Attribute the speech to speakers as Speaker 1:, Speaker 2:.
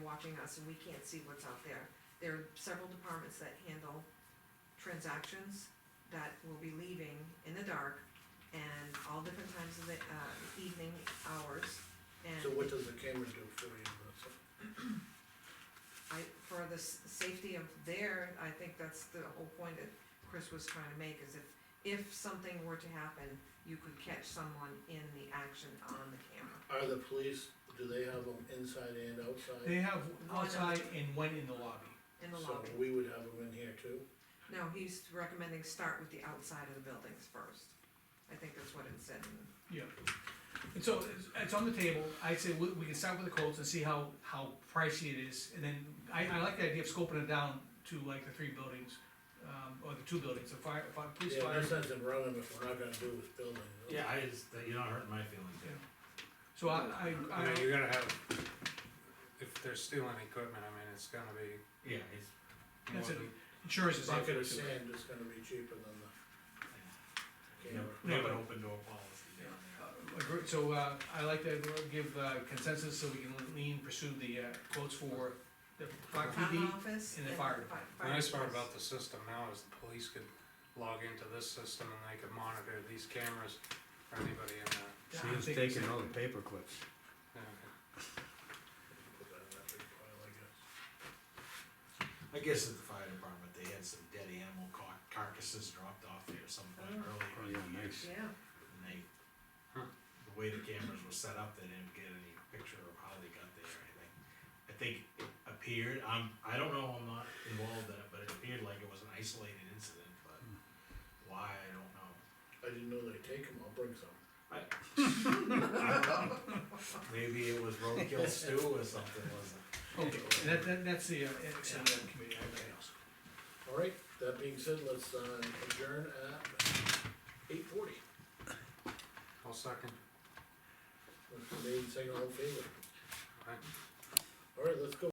Speaker 1: watching us and we can't see what's out there. There are several departments that handle transactions that will be leaving in the dark and all different times of the, uh, evening hours.
Speaker 2: So
Speaker 1: And
Speaker 2: what does the camera do for you?
Speaker 1: I, for the s- safety of there, I think that's the whole point that Chris was trying to make, is if, if something were to happen, you could catch someone in the action on the camera.
Speaker 2: Are the police, do they have them inside and outside?
Speaker 3: They have
Speaker 1: no.
Speaker 3: outside and one in the lobby.
Speaker 1: In the lobby.
Speaker 2: So we would have them in here too?
Speaker 1: No, he's recommending start with the outside of the buildings first. I think that's what it said. in-
Speaker 3: Yeah. And so it's, it's on the table, I'd say we, we can start with the quotes and see how, how pricey it is, and then I, I like the idea of scoping it down to like the three buildings, um, or the two buildings, the fire, fire, police
Speaker 2: Yeah,
Speaker 3: fire.
Speaker 2: no sense in running if we're not gonna do this building.
Speaker 4: Yeah, I just, you're not hurting my feelings
Speaker 3: Yeah. So I, I,
Speaker 5: I mean,
Speaker 3: I,
Speaker 5: you gotta have, if they're stealing equipment, I mean, it's gonna be
Speaker 4: here. Yeah, it's,
Speaker 5: more
Speaker 3: that's it,
Speaker 5: than,
Speaker 3: insurance
Speaker 2: A
Speaker 3: is.
Speaker 2: Bucket of
Speaker 3: too.
Speaker 2: sand is gonna be cheaper than the
Speaker 4: you know,
Speaker 2: camera.
Speaker 4: we have an open door policy down
Speaker 3: Uh, agree- So, uh, I like to give uh, consensus so we can lean, pursue the uh, quotes for the fire
Speaker 1: Town
Speaker 3: PD.
Speaker 1: office.
Speaker 3: and the fire
Speaker 1: fi-
Speaker 5: the
Speaker 1: fire
Speaker 5: nice part
Speaker 1: department.
Speaker 5: about the system now is the police could log into this system and they could monitor these cameras for anybody in the,
Speaker 3: Yeah,
Speaker 4: there.
Speaker 3: I'm thinking so.
Speaker 4: paper clips.
Speaker 5: yeah.
Speaker 2: Put that in that big pile, I guess.
Speaker 6: I guess at the fire department, they had some dead animal car- carcasses dropped off there sometime
Speaker 1: Oh.
Speaker 6: earlier,
Speaker 4: yeah, nice.
Speaker 1: Yeah,
Speaker 6: and they,
Speaker 5: Huh.
Speaker 6: the way the cameras were set up, they didn't get any picture of how they got there or anything. I think it appeared, I'm, I don't know, I'm not involved in it, but it appeared like it was an isolated incident, but why, I don't know.
Speaker 2: I didn't know they take them, I'll bring some.
Speaker 6: Maybe it was roadkill stew or something, wasn't it?
Speaker 3: Okay, and that, that, that's the, uh, extent of the committee, I agree.
Speaker 2: All right, that being said, let's uh, adjourn at eight forty.
Speaker 5: I'll second.
Speaker 2: Made, second, all in favor.
Speaker 5: Aye.
Speaker 2: All right, let's go.